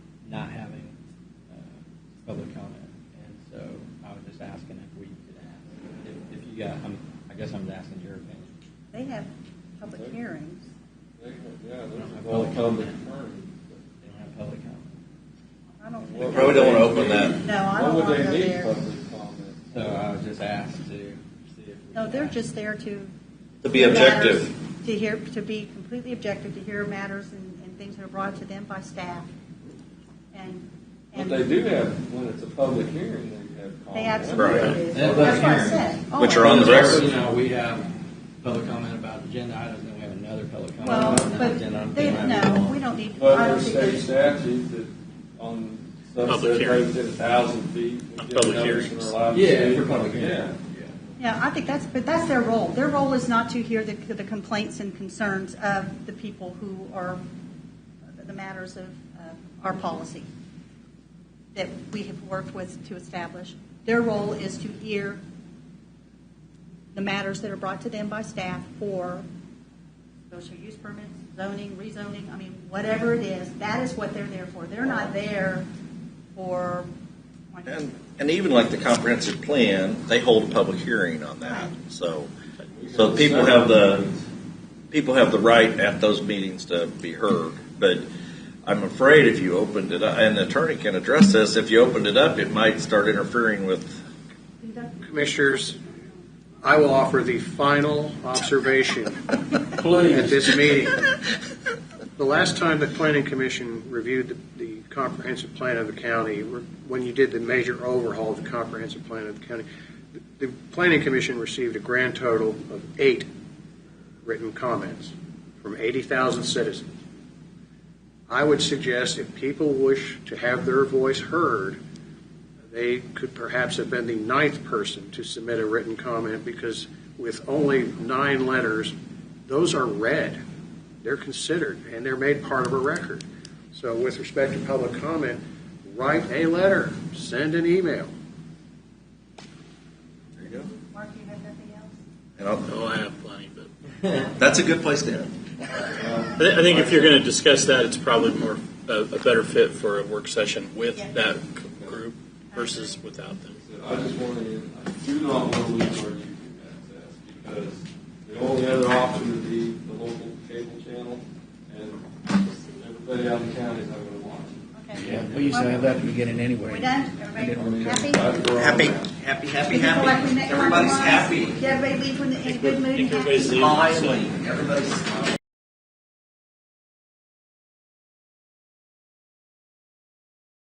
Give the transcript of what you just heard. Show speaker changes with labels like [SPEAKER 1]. [SPEAKER 1] uh, public comment, and so I was just asking if we could ask, if, if you got, I'm, I guess I'm asking your opinion.
[SPEAKER 2] They have public hearings.
[SPEAKER 3] They have- Yeah,
[SPEAKER 1] don't
[SPEAKER 3] there's
[SPEAKER 1] have
[SPEAKER 3] a
[SPEAKER 1] public
[SPEAKER 3] public comment.
[SPEAKER 1] They don't have public comment.
[SPEAKER 2] I don't think.
[SPEAKER 3] What
[SPEAKER 4] Probably
[SPEAKER 3] would
[SPEAKER 4] don't wanna
[SPEAKER 3] they
[SPEAKER 4] open
[SPEAKER 3] need-
[SPEAKER 4] that.
[SPEAKER 2] No, I don't
[SPEAKER 3] What would
[SPEAKER 2] wanna go
[SPEAKER 3] they need
[SPEAKER 2] there.
[SPEAKER 3] public comment?
[SPEAKER 1] So I was just asked to see if. we
[SPEAKER 2] No,
[SPEAKER 1] could
[SPEAKER 2] they're
[SPEAKER 1] ask.
[SPEAKER 2] just there to.
[SPEAKER 4] To be objective.
[SPEAKER 2] matters- To hear, to be completely objective, to hear matters and, and things that are brought to them by staff. And.
[SPEAKER 3] But
[SPEAKER 2] and
[SPEAKER 3] they do have, when it's a public hearing, they have
[SPEAKER 2] They
[SPEAKER 3] comments.
[SPEAKER 4] Right.
[SPEAKER 2] absolutely do.
[SPEAKER 1] They have
[SPEAKER 2] That's what I
[SPEAKER 1] public
[SPEAKER 2] said.
[SPEAKER 1] hearings,
[SPEAKER 2] Oh,
[SPEAKER 4] which are on the
[SPEAKER 1] But also,
[SPEAKER 4] record.
[SPEAKER 1] You know, we have public comment about agenda items, and we have another public comment.
[SPEAKER 2] Well,
[SPEAKER 1] about
[SPEAKER 2] but
[SPEAKER 1] agenda items.
[SPEAKER 2] they, no, we don't need,
[SPEAKER 3] But
[SPEAKER 2] I don't
[SPEAKER 3] there's
[SPEAKER 2] think
[SPEAKER 3] state
[SPEAKER 2] there's.
[SPEAKER 3] statute that on stuff
[SPEAKER 5] Public
[SPEAKER 3] that
[SPEAKER 5] hearing.
[SPEAKER 3] goes in a thousand feet. we
[SPEAKER 5] On
[SPEAKER 3] give
[SPEAKER 5] public
[SPEAKER 3] notice and
[SPEAKER 5] hearings.
[SPEAKER 3] we're allowed to
[SPEAKER 1] Yeah,
[SPEAKER 3] speak.
[SPEAKER 1] for public
[SPEAKER 3] Yeah.
[SPEAKER 1] hearing. Yeah.
[SPEAKER 2] Yeah, I think that's, but that's their role. Their role is not to hear the, the complaints and concerns of the people who are, the matters of uh, our policy that we have worked with to establish. Their role is to hear the matters that are brought to them by staff for special use permits, zoning, rezoning, I mean, whatever it is, that is what they're there for. They're not there for, like,
[SPEAKER 4] And, and even like the comprehensive plan, they hold a public hearing on that. So, so people have the, people have the right at those meetings to be heard. But I'm afraid if you opened it up, and the attorney can address this, if you opened it up, it might start interfering with,
[SPEAKER 6] Commissioners, I will offer the final observation at this meeting. The last time the planning commission reviewed the the comprehensive plan of the county, when you did the major overhaul of the comprehensive plan of the county, the the planning commission received a grand total of eight written comments from 80,000 citizens. I would suggest if people wish to have their voice heard, they could perhaps have been the ninth person to submit a written comment because with only nine letters, those are read, they're considered, and they're made part of a record. So with respect to public comment, write a letter, send an email.
[SPEAKER 4] there you go.
[SPEAKER 2] Mark, you have nothing else?
[SPEAKER 4] And I'll,
[SPEAKER 5] Oh, I have plenty, but.
[SPEAKER 4] that's a good place to end.
[SPEAKER 3] Um,
[SPEAKER 5] I thi- I think if you're going to discuss that, it's probably more, a, a better fit for a work session with
[SPEAKER 2] Yeah.
[SPEAKER 5] that c- group versus without them.
[SPEAKER 3] I just want to, I do not want to lose our YouTube access because the only other option would be the local cable channel and everybody out in the county is not going to watch it.
[SPEAKER 2] Okay.
[SPEAKER 7] Yeah, we used to have that at the beginning anyway.
[SPEAKER 2] We done? Everybody happy?
[SPEAKER 3] That's where I'm
[SPEAKER 8] Happy,
[SPEAKER 3] at.
[SPEAKER 8] happy, happy,
[SPEAKER 2] We feel like we
[SPEAKER 8] happy.
[SPEAKER 2] met
[SPEAKER 8] Everybody's
[SPEAKER 2] compromise.
[SPEAKER 8] happy.
[SPEAKER 2] Did everybody leave with a- in a good mood?
[SPEAKER 5] I think
[SPEAKER 2] and happy?
[SPEAKER 5] everybody's leaving, so-
[SPEAKER 8] Smiling. Everybody's